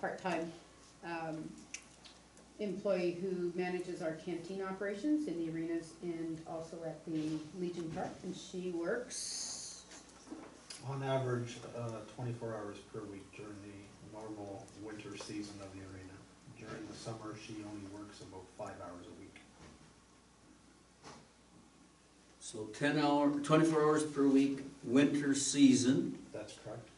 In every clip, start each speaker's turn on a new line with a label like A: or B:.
A: part-time um, employee who manages our canteen operations in the arenas and also at the Legion Park. And she works,
B: On average, uh, twenty-four hours per week during the normal winter season of the arena. During the summer, she only works about five hours a week.
C: So ten hour, twenty-four hours per week, winter season,
B: That's correct.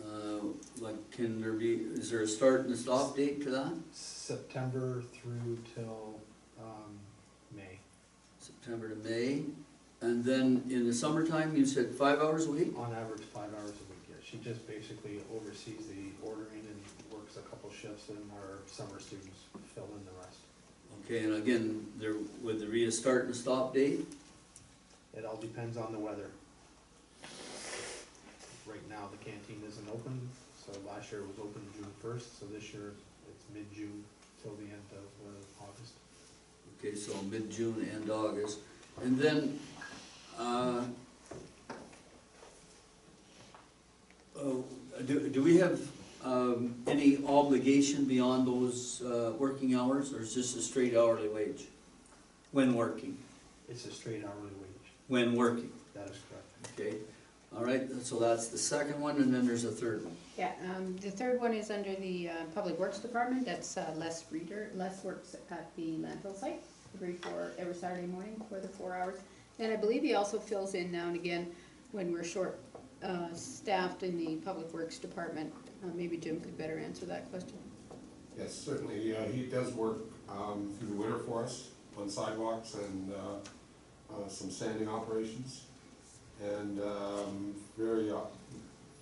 C: uh, like, can there be, is there a start and a stop date to that?
B: September through till, um, May.
C: September to May, and then in the summertime, you said five hours a week?
B: On average, five hours a week, yeah. She just basically oversees the ordering and works a couple shifts and our summer students fill in the rest.
C: Okay, and again, there, would there be a start and a stop date?
B: It all depends on the weather. Right now, the canteen isn't open, so last year it was open June first, so this year it's mid-June till the end of uh, August.
C: Okay, so mid-June and August, and then, uh, oh, do, do we have, um, any obligation beyond those, uh, working hours, or is this a straight hourly wage? When working,
B: It's a straight hourly wage,
C: when working,
B: that is correct.
C: okay, all right, so that's the second one, and then there's a third one.
A: yeah, um, the third one is under the uh, Public Works Department. That's uh, Les Reader, Les works at the landfill site every four, every Saturday morning for the four hours. And I believe he also fills in now and again when we're short uh, staffed in the Public Works Department. Uh, Maybe Jim could better answer that question.
D: Yes, certainly, uh, he does work, um, through the winter for us on sidewalks and, uh, uh, some sanding operations. And, um, very, uh,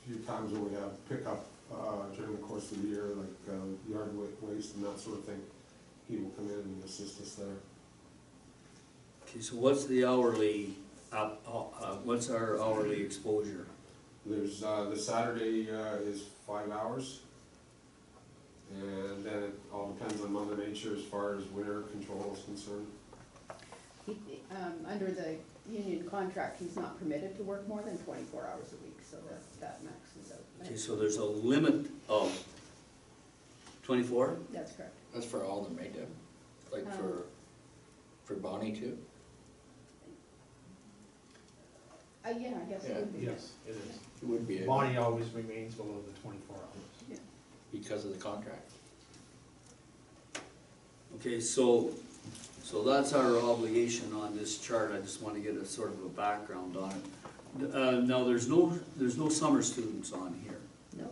D: few times when we have pickup, uh, during the course of the year, like, uh, yard wa- waste and that sort of thing, he will come in and assist us there.
C: Okay, so what's the hourly, uh, uh, uh, what's our hourly exposure?
D: There's, uh, the Saturday, uh, is five hours. And then it all depends on mother nature as far as winter control is concerned.
A: He, um, under the union contract, he's not permitted to work more than twenty-four hours a week, so that, that maxes out.
C: Okay, so there's a limit of twenty-four?
A: That's correct.
E: That's for all of them, right, Deb? Like for, for Bonnie too?
A: Uh, yeah, I guess it would be.
B: Yes, it is.
E: It would be,
B: Bonnie always remains below the twenty-four hours.
E: because of the contract.
C: Okay, so, so that's our obligation on this chart, I just wanna get a sort of a background on it. Uh, now, there's no, there's no summer students on here.
A: No,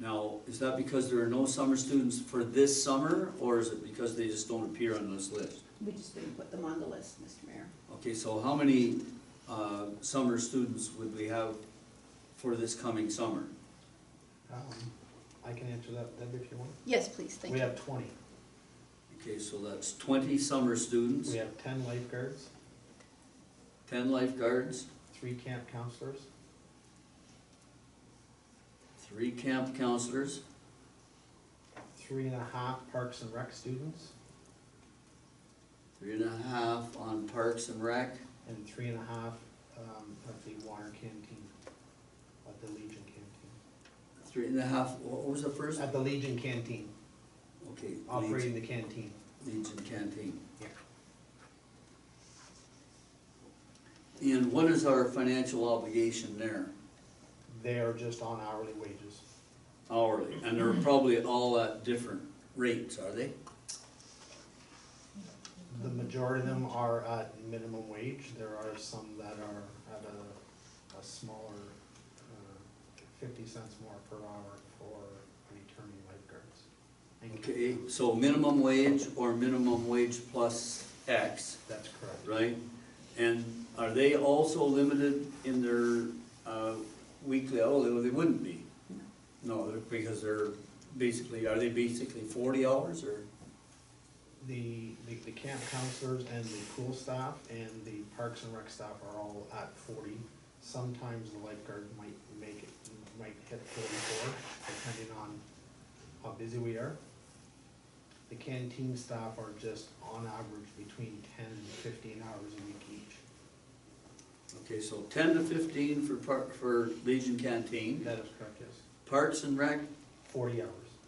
C: Now, is that because there are no summer students for this summer, or is it because they just don't appear on this list?
A: we just didn't put them on the list, Mr. Mayor.
C: Okay, so how many, uh, summer students would we have for this coming summer?
B: Um, I can answer that, Deb, if you want.
A: Yes, please, thank
B: We
A: you.
B: have twenty.
C: Okay, so that's twenty summer students.
B: We have ten lifeguards,
C: Ten lifeguards,
B: three camp counselors,
C: three camp counselors,
B: three and a half parks and rec students,
C: three and a half on Parks and Rec,
B: and three and a half um, at the water canteen, at the Legion canteen.
C: three and a half, wha- what was the first?
B: At the Legion canteen,
C: Okay, Legion,
B: operating the canteen.
C: Legion Canteen.
B: Yeah.
C: And what is our financial obligation there
B: They are just on hourly wages.
C: hourly? And they're probably all at different rates, are they?
B: The majority of them are at minimum wage. There are some that are at a, a smaller, uh, fifty cents more per hour for returning lifeguards. Thank you.
C: Okay, so minimum wage or minimum wage plus X,
B: That's correct.
C: right? And are they also limited in their uh, weekly, oh, they- they wouldn't be? No, they're- because they're basically, are they basically forty hours or?
B: The, the, the camp counselors and the pool staff and the parks and rec staff are all at forty. Sometimes the lifeguard might make it, might hit forty-four, depending on how busy we are. The canteen staff are just on average between ten and fifteen hours a week each.
C: Okay, so ten to fifteen for par for Legion Canteen,
B: That is correct, yes.
C: Parks and Rec,
B: Forty hours.